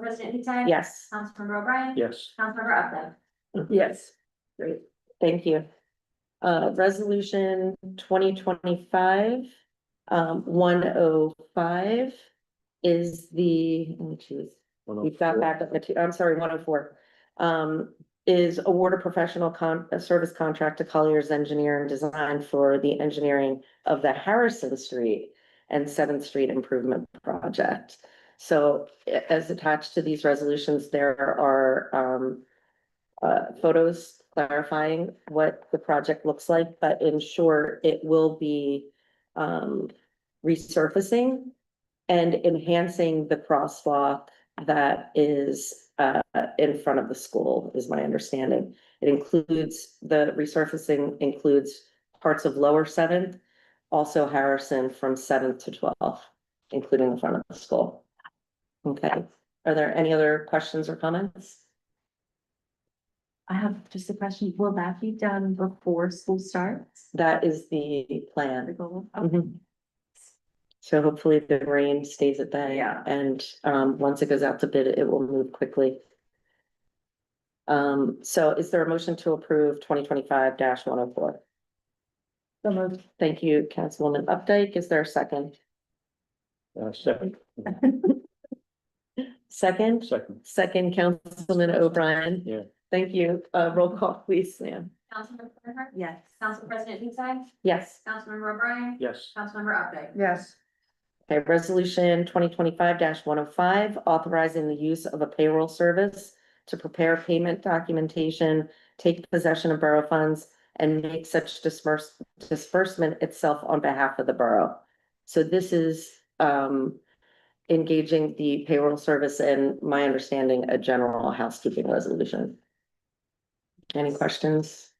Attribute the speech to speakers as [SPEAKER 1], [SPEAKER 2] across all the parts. [SPEAKER 1] President Lee Tag?
[SPEAKER 2] Yes.
[SPEAKER 1] Councilmember O'Brien?
[SPEAKER 3] Yes.
[SPEAKER 1] Councilmember Updike?
[SPEAKER 2] Yes. Great, thank you. Uh, resolution twenty twenty-five, um, one oh five is the, let me choose.
[SPEAKER 3] oh
[SPEAKER 2] We've got back up the two, I'm sorry, one oh four. Um, is award a professional con, a service contract to Colliers Engineer and Design for the engineering of the Harrison Street and Seventh Street Improvement Project. So a- as attached to these resolutions, there are, um, uh, photos clarifying what the project looks like, but in short, it will be, um, resurfacing and enhancing the crosswalk that is uh in front of the school, is my understanding. It includes, the resurfacing includes parts of lower seventh, also Harrison from seventh to twelfth, including the front of the school. Okay, are there any other questions or comments?
[SPEAKER 4] I have just a question. Will that be done before school starts?
[SPEAKER 2] That is the
[SPEAKER 4] The
[SPEAKER 2] plan.
[SPEAKER 4] goal?
[SPEAKER 2] Mhm. So hopefully the rain stays at bay.
[SPEAKER 4] Yeah.
[SPEAKER 2] And um, once it goes out to bid, it will move quickly. Um, so is there a motion to approve twenty twenty-five one oh four?
[SPEAKER 4] So moved.
[SPEAKER 2] Thank you, Councilwoman Updike. Is there a second?
[SPEAKER 3] Uh, second,
[SPEAKER 2] Second,
[SPEAKER 3] second,
[SPEAKER 2] second, Councilman O'Brien.
[SPEAKER 3] Yeah.
[SPEAKER 2] Thank you. Uh, roll call, please, Sam.
[SPEAKER 1] Councilmember Bernhardt?
[SPEAKER 4] Yes.
[SPEAKER 1] Council President Lee Tag?
[SPEAKER 2] Yes.
[SPEAKER 1] Councilmember O'Brien?
[SPEAKER 3] yes.
[SPEAKER 1] Councilmember Updike?
[SPEAKER 4] Yes.
[SPEAKER 2] Okay, resolution twenty twenty-five one oh five, authorizing the use of a payroll service to prepare payment documentation, take possession of borough funds, and make such disperse, disbursement itself on behalf of the borough. So this is, um, engaging the payroll service and my understanding, a general housekeeping resolution. Any questions?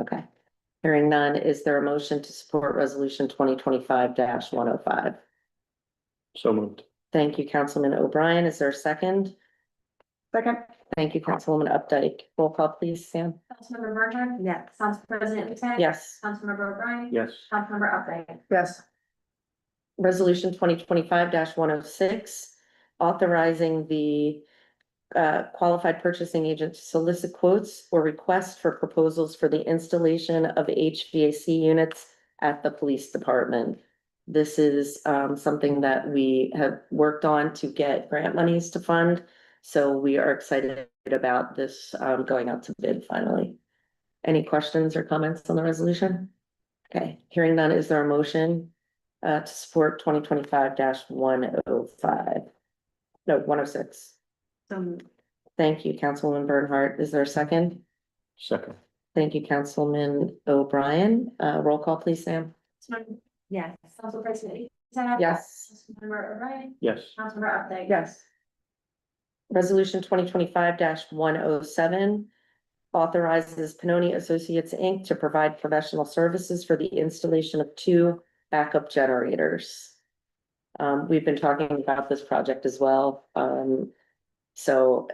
[SPEAKER 2] Okay. Hearing none, is there a motion to support resolution twenty twenty-five one oh five?
[SPEAKER 3] So moved.
[SPEAKER 2] Thank you, Councilman O'Brien. Is there a second?
[SPEAKER 4] Second.
[SPEAKER 2] Thank you, Councilwoman Updike. Roll call, please, Sam.
[SPEAKER 1] Councilmember Bernhardt?
[SPEAKER 4] Yes.
[SPEAKER 1] Council President Lee Tag?
[SPEAKER 2] Yes.
[SPEAKER 1] Councilmember O'Brien?
[SPEAKER 3] Yes.
[SPEAKER 1] Councilmember Updike?
[SPEAKER 4] Yes.
[SPEAKER 2] Resolution twenty twenty-five one oh six, authorizing the uh, qualified purchasing agent to solicit quotes or requests for proposals for the installation of HVAC units at the police department. This is um, something that we have worked on to get grant monies to fund. So we are excited about this um, going out to bid finally. Any questions or comments on the resolution? Okay, hearing none, is there a motion uh, to support twenty twenty-five one oh five? No, one oh six.
[SPEAKER 4] So moved.
[SPEAKER 2] Thank you, Councilwoman Bernhardt. Is there a second?
[SPEAKER 3] Second,
[SPEAKER 2] Thank you, Councilman O'Brien. Uh, roll call, please, Sam.
[SPEAKER 1] Councilmember-
[SPEAKER 4] Yes.
[SPEAKER 1] Council President Lee Tag?
[SPEAKER 2] Yes.
[SPEAKER 1] Councilmember O'Brien?
[SPEAKER 3] yes.
[SPEAKER 1] Councilmember Updike?
[SPEAKER 4] Yes.
[SPEAKER 2] Resolution twenty twenty-five one oh seven authorizes Panoni Associates, Inc. to provide professional services for the installation of two backup generators. Um, we've been talking about this project as well. Um, so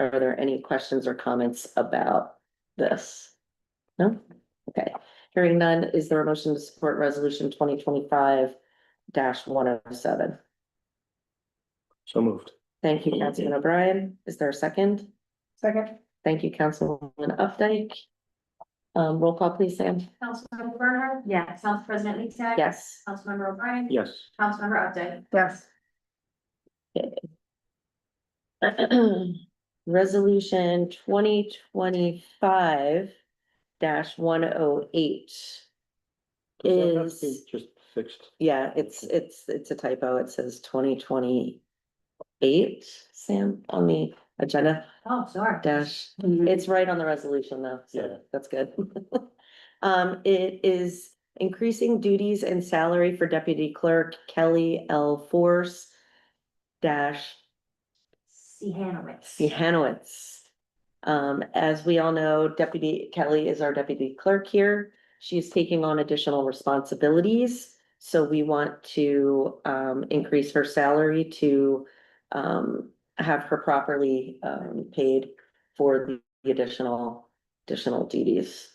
[SPEAKER 2] are there any questions or comments about this? No? Okay. Hearing none, is there a motion to support resolution twenty twenty-five one oh seven?
[SPEAKER 3] So moved.
[SPEAKER 2] Thank you, Councilman O'Brien. Is there a second?
[SPEAKER 4] Second.
[SPEAKER 2] Thank you, Councilwoman Updike. Um, roll call, please, Sam.
[SPEAKER 1] Councilmember Bernhardt?
[SPEAKER 4] Yes.
[SPEAKER 1] Council President Lee Tag?
[SPEAKER 2] Yes.
[SPEAKER 1] Councilmember O'Brien?
[SPEAKER 3] Yes.
[SPEAKER 1] Councilmember Updike?
[SPEAKER 4] Yes.
[SPEAKER 2] Resolution twenty twenty-five one oh eight.
[SPEAKER 3] Does that have to be
[SPEAKER 2] Is-
[SPEAKER 3] Just fixed.
[SPEAKER 2] Yeah, it's, it's, it's a typo. It says twenty twenty-eight, Sam, on the agenda
[SPEAKER 1] Oh, sorry.
[SPEAKER 2] dash
[SPEAKER 1] Mm-hmm.
[SPEAKER 2] It's right on the resolution though,
[SPEAKER 3] Yeah.
[SPEAKER 2] so that's good. Um, it is increasing duties and salary for deputy clerk Kelly L. Force dash
[SPEAKER 1] C. Hanaway.
[SPEAKER 2] Hanowitz. Um, as we all know, Deputy Kelly is our deputy clerk here. She is taking on additional responsibilities. So we want to um increase her salary to um have her properly um paid for the additional additional duties.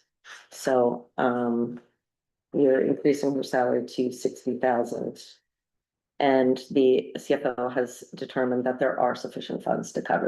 [SPEAKER 2] So um we are increasing her salary to sixty thousand And the CFO has determined that there are sufficient funds to cover